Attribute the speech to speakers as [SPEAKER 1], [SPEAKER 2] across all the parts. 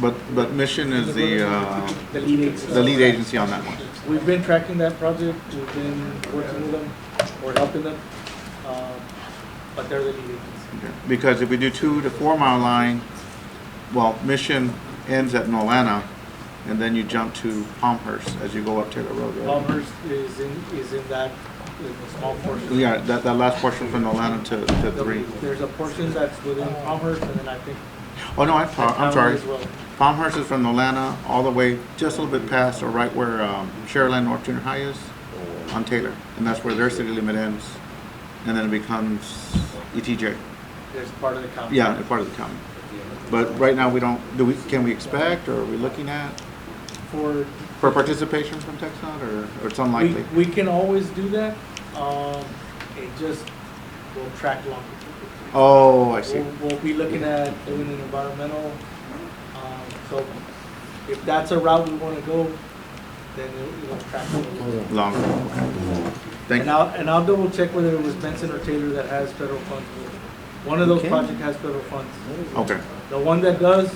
[SPEAKER 1] But, but Mission is the, uh,
[SPEAKER 2] the lead agency.
[SPEAKER 1] the lead agency on that one.
[SPEAKER 2] We've been tracking that project, we've been working with them, or helping them, uh, but they're the lead agency.
[SPEAKER 1] Okay. Because if we do two to four mile line, well, Mission ends at Nolana, and then you jump to Palmhurst as you go up Taylor Road, right?
[SPEAKER 2] Palmer's is in, is in that, is a small portion.
[SPEAKER 1] Yeah, that, that last portion from Nolana to, to three.
[SPEAKER 2] There's a portion that's within Palmer's, and then I think.
[SPEAKER 1] Oh, no, I'm, sorry- I'm sorry.
[SPEAKER 2] As well.
[SPEAKER 1] Palmhurst is from Nolana all the way just a little bit past or right where um, Sherland North Junior High is on Taylor. And that's where their city limit ends. And then it becomes ETJ.
[SPEAKER 2] There's part of the county.
[SPEAKER 1] Yeah, a part of the county. But right now, we don't, do we, can we expect or are we looking at
[SPEAKER 2] For
[SPEAKER 1] for participation from TechStop or, or it's
[SPEAKER 2] We,
[SPEAKER 1] unlikely?
[SPEAKER 2] we can always do that, um, it just will track longer.
[SPEAKER 1] Oh, I see.
[SPEAKER 2] We'll, we'll be looking at doing an environmental, um, so if that's a route we wanna go, then it'll, it'll track a little bit.
[SPEAKER 1] Longer, okay. Thank
[SPEAKER 2] And
[SPEAKER 1] you.
[SPEAKER 2] I'll, and I'll double check whether it was Benson or Taylor that has federal funds. One of those
[SPEAKER 1] Okay. Oh.
[SPEAKER 2] projects has federal funds.
[SPEAKER 1] Okay,
[SPEAKER 2] The one that does,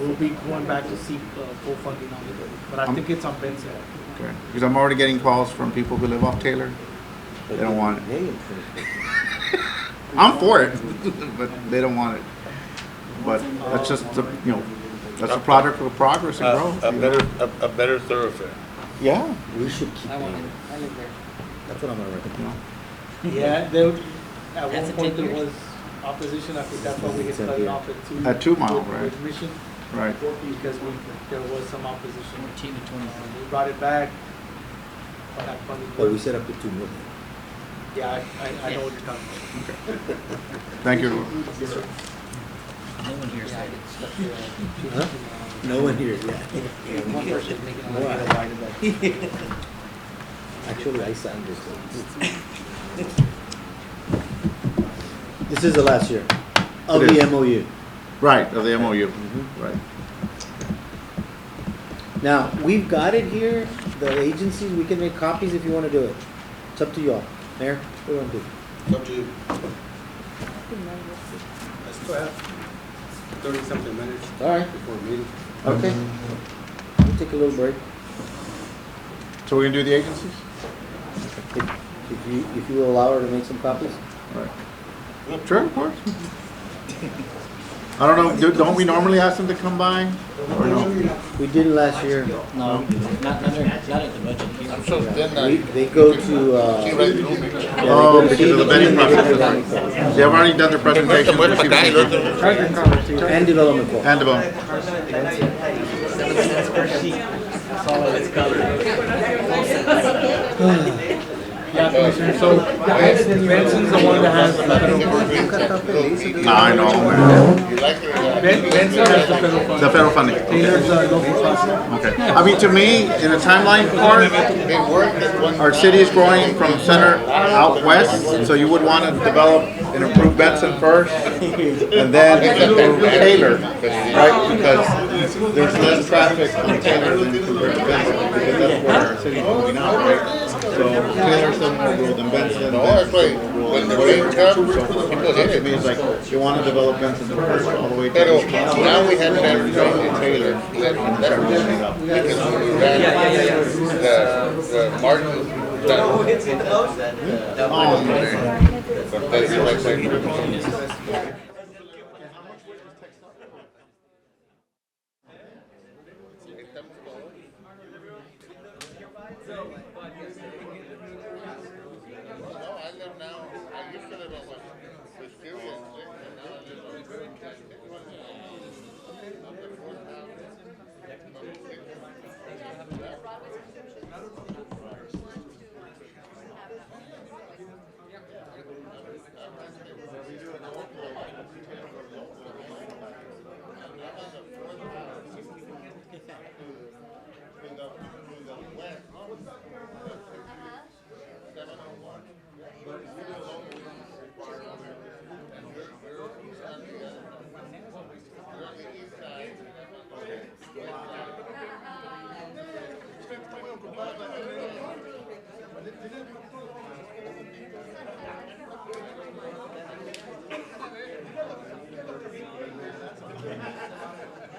[SPEAKER 2] will be going back to seek, uh, full funding on it, but I
[SPEAKER 1] Um,
[SPEAKER 2] think it's on Benson.
[SPEAKER 1] okay. Because I'm already getting calls from people who live off Taylor. They don't want it. I'm for it, but they don't want it. But that's just, the you know, that's a product of progress and growth.
[SPEAKER 3] Uh, A a
[SPEAKER 1] you know?
[SPEAKER 3] better, a- a better thoroughfare.
[SPEAKER 1] Yeah.
[SPEAKER 4] We should keep
[SPEAKER 5] I
[SPEAKER 4] that.
[SPEAKER 5] want it. I live there.
[SPEAKER 4] That's what I'm gonna
[SPEAKER 1] you know.
[SPEAKER 4] recommend.
[SPEAKER 2] Yeah, there, at
[SPEAKER 5] That's
[SPEAKER 2] one
[SPEAKER 5] a
[SPEAKER 2] point there
[SPEAKER 5] ten-year.
[SPEAKER 2] was opposition, I think that's why we had cut it off at two.
[SPEAKER 1] At two mile,
[SPEAKER 2] with-
[SPEAKER 1] right.
[SPEAKER 2] With Mission,
[SPEAKER 1] Right.
[SPEAKER 2] because we, there was some opposition.
[SPEAKER 5] Fourteen to
[SPEAKER 2] Uh,
[SPEAKER 5] twenty-five.
[SPEAKER 2] We brought it back, but that funding.
[SPEAKER 4] But we set up the two million.
[SPEAKER 2] Yeah, I, I, I know what you're talking about.
[SPEAKER 1] Thank you. everyone.
[SPEAKER 2] Yes, sir.
[SPEAKER 5] No one hears
[SPEAKER 2] Yeah, I
[SPEAKER 5] that.
[SPEAKER 2] get stuck there.
[SPEAKER 4] Huh? No one here, yeah.
[SPEAKER 5] Yeah, One person's making a
[SPEAKER 4] Why?
[SPEAKER 5] lot of light about it.
[SPEAKER 4] Actually, I signed this one. This is the last year of
[SPEAKER 1] It
[SPEAKER 4] the
[SPEAKER 1] is.
[SPEAKER 4] MOU.
[SPEAKER 1] Right, of the MOU.
[SPEAKER 3] Mm-hmm.
[SPEAKER 4] Mhm.
[SPEAKER 1] Right.
[SPEAKER 4] Now, we've got it here, the agencies, we can make copies if you wanna do it. It's up to y'all. Mayor, what do you wanna do?
[SPEAKER 6] Up to you. I still have thirty something minutes
[SPEAKER 4] All right,
[SPEAKER 6] before meeting.
[SPEAKER 4] okay.
[SPEAKER 1] Mm-hmm.
[SPEAKER 4] We'll take a little break.
[SPEAKER 1] So we're gonna do the agencies?
[SPEAKER 4] If if you, if you will allow her to make some copies?
[SPEAKER 1] Right. Sure, of course. I don't know, do- don't we normally ask them to come by? Or no?
[SPEAKER 4] We did it last year.
[SPEAKER 5] No, not, not, during- not at the budget
[SPEAKER 3] I'm
[SPEAKER 5] hearing.
[SPEAKER 3] so thin that
[SPEAKER 4] We, they go to, uh.
[SPEAKER 3] The
[SPEAKER 1] Oh, because of the vetting process. They have already done their presentation.
[SPEAKER 3] muerto acá y el otro.
[SPEAKER 4] And development board.
[SPEAKER 1] And about.
[SPEAKER 2] Yeah, Commissioner, so Benson's the one that has the federal funds.
[SPEAKER 1] No, I know. man.
[SPEAKER 2] Ben- Benson has the federal funds.
[SPEAKER 1] The federal funding.
[SPEAKER 2] Taylor's the local funds.
[SPEAKER 1] Okay. I mean, to me, in the timeline part, our city is growing from center out west, so you would want to develop and improve Benson first, and then improve Taylor, right? Because there's less traffic from Taylor than compared to Benson, because that's where our city's moving out, right? So Taylor's the more rural than Benson, Benson's the more rural than Taylor. So, so to me, it's like, you want to develop Benson first, all the way
[SPEAKER 3] Pero
[SPEAKER 1] to.
[SPEAKER 3] now we have that in Taylor. that- that- because we ran The, the Martin, that,
[SPEAKER 1] Oh, man.
[SPEAKER 3] but that's like, like,